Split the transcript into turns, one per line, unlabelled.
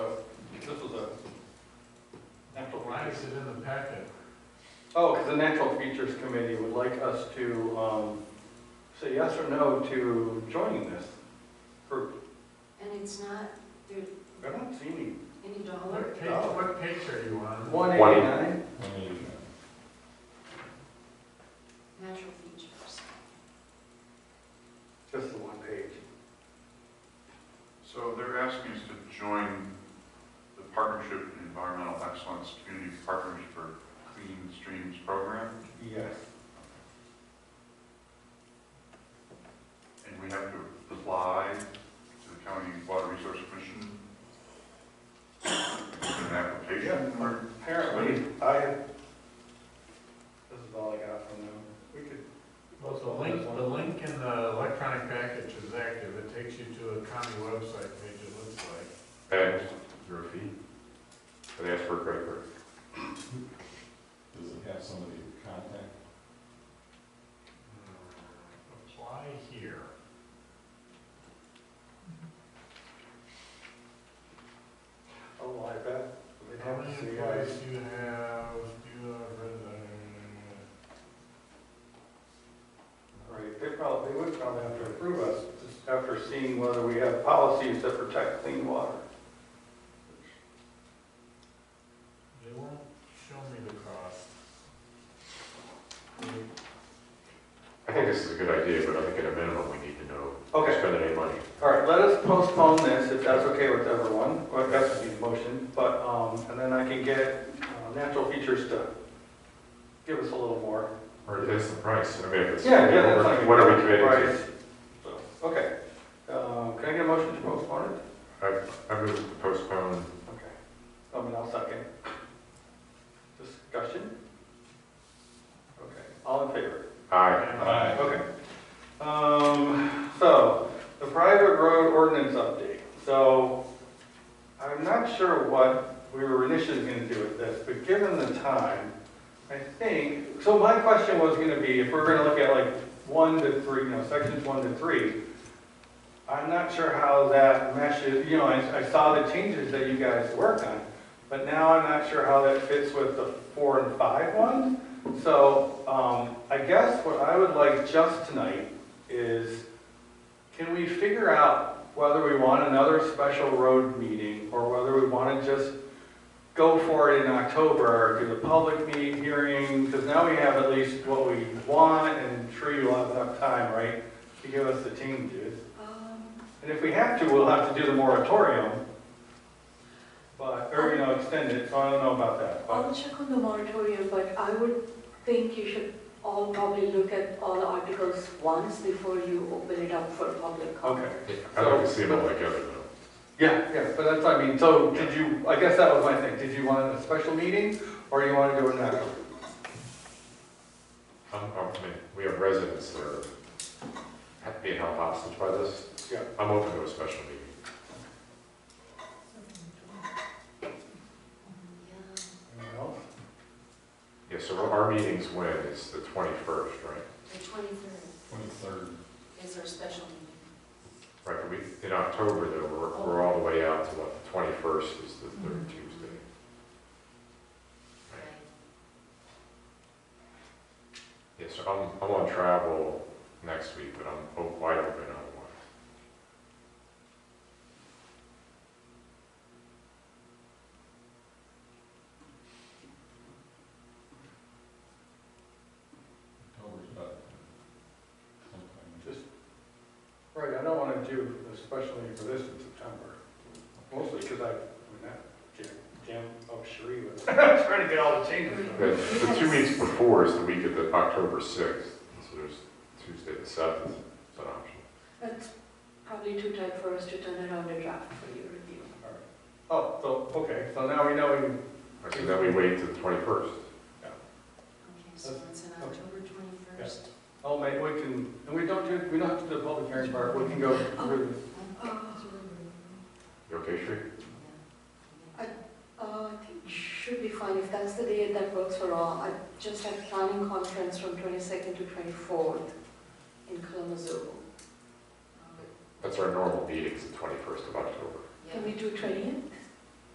is in the packet.
Oh, because the Natural Features Committee would like us to um, say yes or no to joining this group.
And it's not, there's
I don't see any.
any dollar.
What page,
Oh.
what page are you on?
One eighty-nine?
natural features.
Just the one page.
So they're asking us to join the Partnership in Environmental Excellence Community Partners for Clean Streams program,
Yes.
and we have to apply to the County Water Resource Commission. An application,
Yeah,
or
apparently, I, this is all I got from them. We could,
Well, the link, the link in the electronic package is active, it takes you to a county website page, it looks like.
Bags, your feet. But ask for a credit card.
Does it have somebody to contact?
Apply here.
oh, I bet. They'd
How
have
many
to see us.
employees do you have, do you have, uh,
Right, they probably, they would probably have to approve us just after seeing whether we have policies that protect clean water.
they won't show me the cost. They-
I think this is a good idea, but I think at a minimum, we need to know,
Okay.
who's spending any money.
All right, let us postpone this, if that's okay with everyone, or if that's the motion, but, um, and then I can get uh, natural features to give us a little more.
Or that's the price, I mean, if it's,
Yeah, yeah, that's not.
what are we committed to?
Right. So, Okay, uh, can I get a motion to postpone it?
I move to postpone,
Okay, I mean, I'll second. Discussion? Okay, all in favor?
aye,
Okay. Um, so, the private road ordinance update. So, I'm not sure what we were initially gonna do with this, but given the time, I think, so my question was gonna be, if we're gonna look at like one to three, you know, sections one to three, I'm not sure how that meshes, you know, I, I saw the changes that you guys worked on, but now I'm not sure how that fits with the four and five ones. So, um, I guess what I would like just tonight is, can we figure out whether we want another special road meeting or whether we want to just go for it in October, or do the public meeting hearing, because now we have at least what we want and I'm sure you'll have enough time, right, to give us the changes.
Um,
And if we have to, we'll have to do the moratorium, but, or, you know, extend it, so I don't know about that. but-
I'll check on the moratorium, but I would think you should all probably look at all articles once before you open it up for public comment.
Okay.
I'd like to see them all together, though.
Yeah, yeah, but that's, what I mean, so did you, I guess that was my thing, did you want a special meeting, or you want to do it now?
I'm, I'm, I mean, we have residents that are ha- being held hostage by this.
Yeah.
I'm open to a special meeting.
yeah.
Anyone else?
Yeah, so our meeting's when, it's the twenty-first, right?
The twenty-third
Twenty-third.
is our special meeting.
Right, but we, in October, though, we're, we're all the way out to what, the twenty-first is the third Tuesday.
right?
Yeah, so I'm, I'm on travel next week, but I'm o- wide open otherwise.
October's about sometime.
Just, right, I don't want to do a special meeting for this in September, mostly because I, I mean, that, Jim, Jim, oh, Sheree was trying to get all the changes done.
The, the two weeks before is the week of the October sixth, so there's Tuesday the seventh, it's an option.
That's probably too tight for us to turn around a draft for your review.
Oh, so, okay, so now we know, we-
Right, So then we wait to the twenty-first.
Okay, so it's on October twenty-first.
oh, mate, we can, and we don't do, we don't have to do the public hearing part, we can go through this.
You okay, Sri?
Uh, I think should be fine if that's the date that works for all. I just had planning conference from 22nd to 24th in Kalamazoo.
That's our normal meeting's the twenty-first of October.
Yeah,
Can we do 20th?